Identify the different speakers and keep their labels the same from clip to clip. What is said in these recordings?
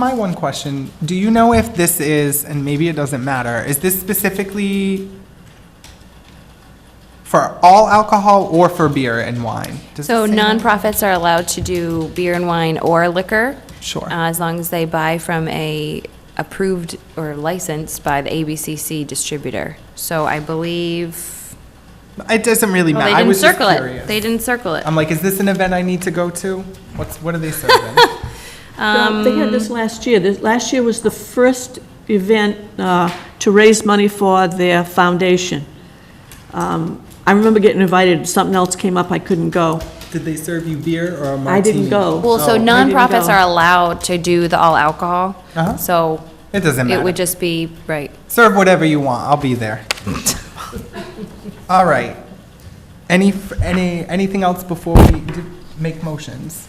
Speaker 1: My one question, do you know if this is, and maybe it doesn't matter, is this specifically for all alcohol or for beer and wine? Does it
Speaker 2: So
Speaker 1: say that?
Speaker 2: nonprofits are allowed to do beer and wine or liquor.
Speaker 1: Sure.
Speaker 2: uh, As long as they buy from a approved or licensed by the ABCC distributor. So I believe,
Speaker 1: It doesn't really
Speaker 2: well,
Speaker 1: matter.
Speaker 2: they
Speaker 1: I
Speaker 2: didn't
Speaker 1: was just
Speaker 2: circle it.
Speaker 1: curious. Um,
Speaker 2: They didn't circle it.
Speaker 1: I'm like, is this an event I need to go to? What's, what are they serving?
Speaker 3: Well, They had this last year. This, last year was the first event uh, to raise money for their foundation. Um, I remember getting invited, something else came up, I couldn't go.
Speaker 1: Did they serve you beer or a martini?
Speaker 3: I didn't go.
Speaker 2: Well, so
Speaker 3: didn't
Speaker 2: nonprofits
Speaker 3: go.
Speaker 2: are allowed to do the all alcohol.
Speaker 1: Uh-huh.
Speaker 2: So
Speaker 1: It doesn't
Speaker 2: it
Speaker 1: matter.
Speaker 2: would just be, right.
Speaker 1: Serve whatever you want, I'll be there. All right. Any, f- any, anything else before we d- make motions?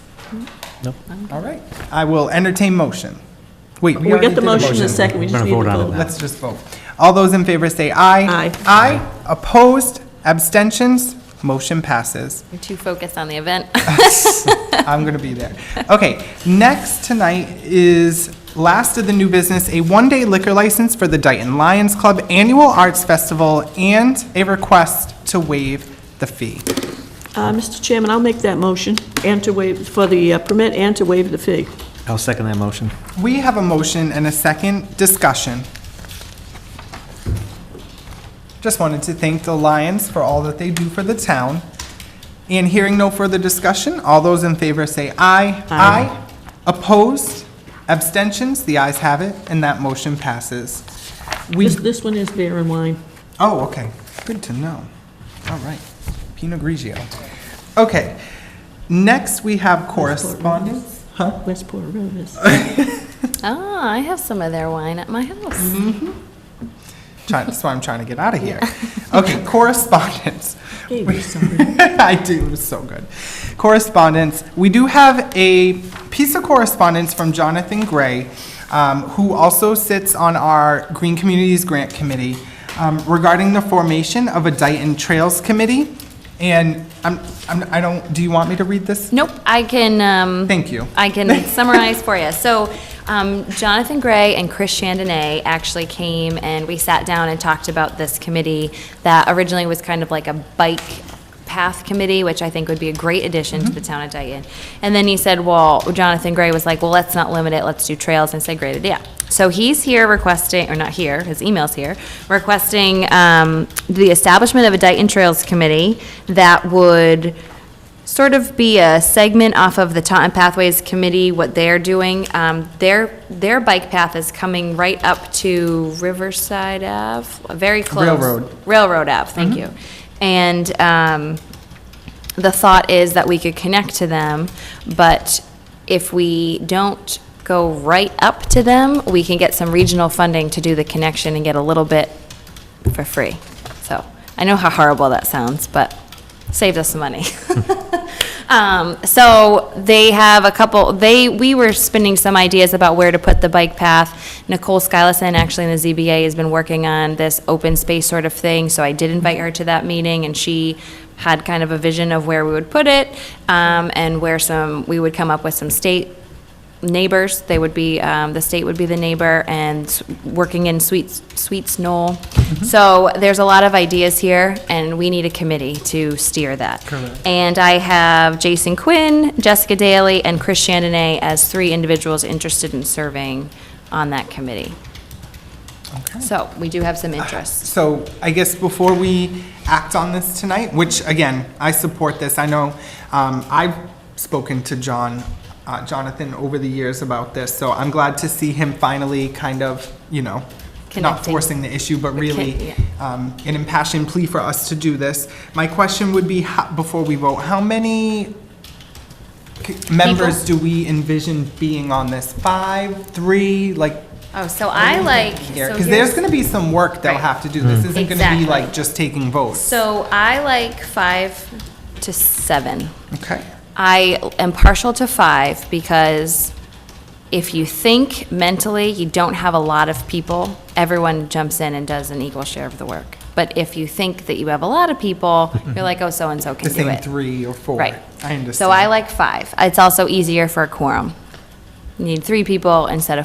Speaker 4: No.
Speaker 1: All right, I will entertain motion. Wait, we
Speaker 3: We
Speaker 1: already
Speaker 3: got
Speaker 1: did
Speaker 3: the
Speaker 1: a
Speaker 3: motion in
Speaker 1: motion.
Speaker 3: a second, we
Speaker 4: We're
Speaker 3: just
Speaker 4: gonna
Speaker 3: need to
Speaker 4: vote on it
Speaker 3: vote.
Speaker 4: now.
Speaker 1: Let's just vote. All those in favor say aye.
Speaker 3: Aye.
Speaker 1: Aye, opposed, abstentions, motion passes.
Speaker 2: You're too focused on the event.
Speaker 1: I'm going to be there. Okay, next tonight is last of the new business, a one-day liquor license for the Dayton Lions Club Annual Arts Festival and a request to waive the fee.
Speaker 3: Uh, Mr. Chairman, I'll make that motion, and to waive, for the uh, permit and to waive the fee.
Speaker 4: I'll second that motion.
Speaker 1: We have a motion and a second discussion. Just wanted to thank the Lions for all that they do for the town. And hearing no further discussion, all those in favor say aye. Aye. Opposed? Abstentions? The ayes have it, and that motion passes. We,
Speaker 3: This, this one is beer and wine.
Speaker 1: oh, okay, good to know. All right, Pinot Grigio. Okay, next we have correspondence. Huh?
Speaker 3: Westport Road is.
Speaker 2: Ah, I have some of their wine at my house.
Speaker 1: Mm-hmm. Trying, that's why I'm trying to get out of here. Okay, correspondence.
Speaker 3: Hey,
Speaker 1: We-
Speaker 3: we're sorry.
Speaker 1: I do, it was so good. Correspondence. We do have a piece of correspondence from Jonathan Gray, um, who also sits on our Green Communities Grant Committee, um, regarding the formation of a Dayton Trails Committee. And I'm, I'm, I don't, do you want me to read this?
Speaker 2: Nope, I can, um.
Speaker 1: Thank you.
Speaker 2: I can summarize for you. So um, Jonathan Gray and Chris Chandonnet actually came and we sat down and talked about this committee that originally was kind of like a bike path committee, which I think would be a great addition to the town of Dayton. And then he said, well, Jonathan Gray was like, well, let's not limit it, let's do trails. And I said, great idea. So he's here requesting, or not here, his email's here, requesting um, the establishment of a Dayton Trails Committee that would sort of be a segment off of the Taunton Pathways Committee, what they're doing. Um, Their, their bike path is coming right up to Riverside Ave, very close.
Speaker 1: Railroad.
Speaker 2: Railroad Ave, thank you. And um, the thought is that we could connect to them, but if we don't go right up to them, we can get some regional funding to do the connection and get a little bit for free. So, I know how horrible that sounds, but saved us some money. Um, so they have a couple, they, we were spinning some ideas about where to put the bike path. Nicole Skylison, actually in the ZBA, has been working on this open space sort of thing, so I did invite her to that meeting, and she had kind of a vision of where we would put it, um, and where some, we would come up with some state neighbors, they would be, um, the state would be the neighbor, and s- working in Sweets, Sweets Knoll. So there's a lot of ideas here, and we need a committee to steer that. And I have Jason Quinn, Jessica Daly, and Chris Chandonnet as three individuals interested in serving on that committee. So we do have some interest.
Speaker 1: So I guess before we act on this tonight, which again, I support this, I know, um, I've spoken to John, uh, Jonathan over the years about this, so I'm glad to see him finally kind of, you know, not
Speaker 2: Connecting.
Speaker 1: forcing the issue, but
Speaker 2: Recon-
Speaker 1: really,
Speaker 2: yeah.
Speaker 1: um, an impassioned plea for us to do this. My question would be, ho- before we vote, how many c- members do we envision being on this? Five, three, like,
Speaker 2: Oh, so I like, so
Speaker 1: here, because there's
Speaker 2: here's-
Speaker 1: going to be some work they'll
Speaker 2: Right.
Speaker 1: have to do. This isn't going to be
Speaker 2: Exactly.
Speaker 1: like just taking votes.
Speaker 2: So I like five to seven.
Speaker 1: Okay.
Speaker 2: I am partial to five because if you think mentally you don't have a lot of people, everyone jumps in and does an equal share of the work. But if you think that you have a lot of people, you're like, oh, so-and-so
Speaker 1: The
Speaker 2: can do
Speaker 1: same
Speaker 2: it.
Speaker 1: three or four.
Speaker 2: Right.
Speaker 1: I understand.
Speaker 2: So I like five. It's also easier for a quorum. You need three people instead of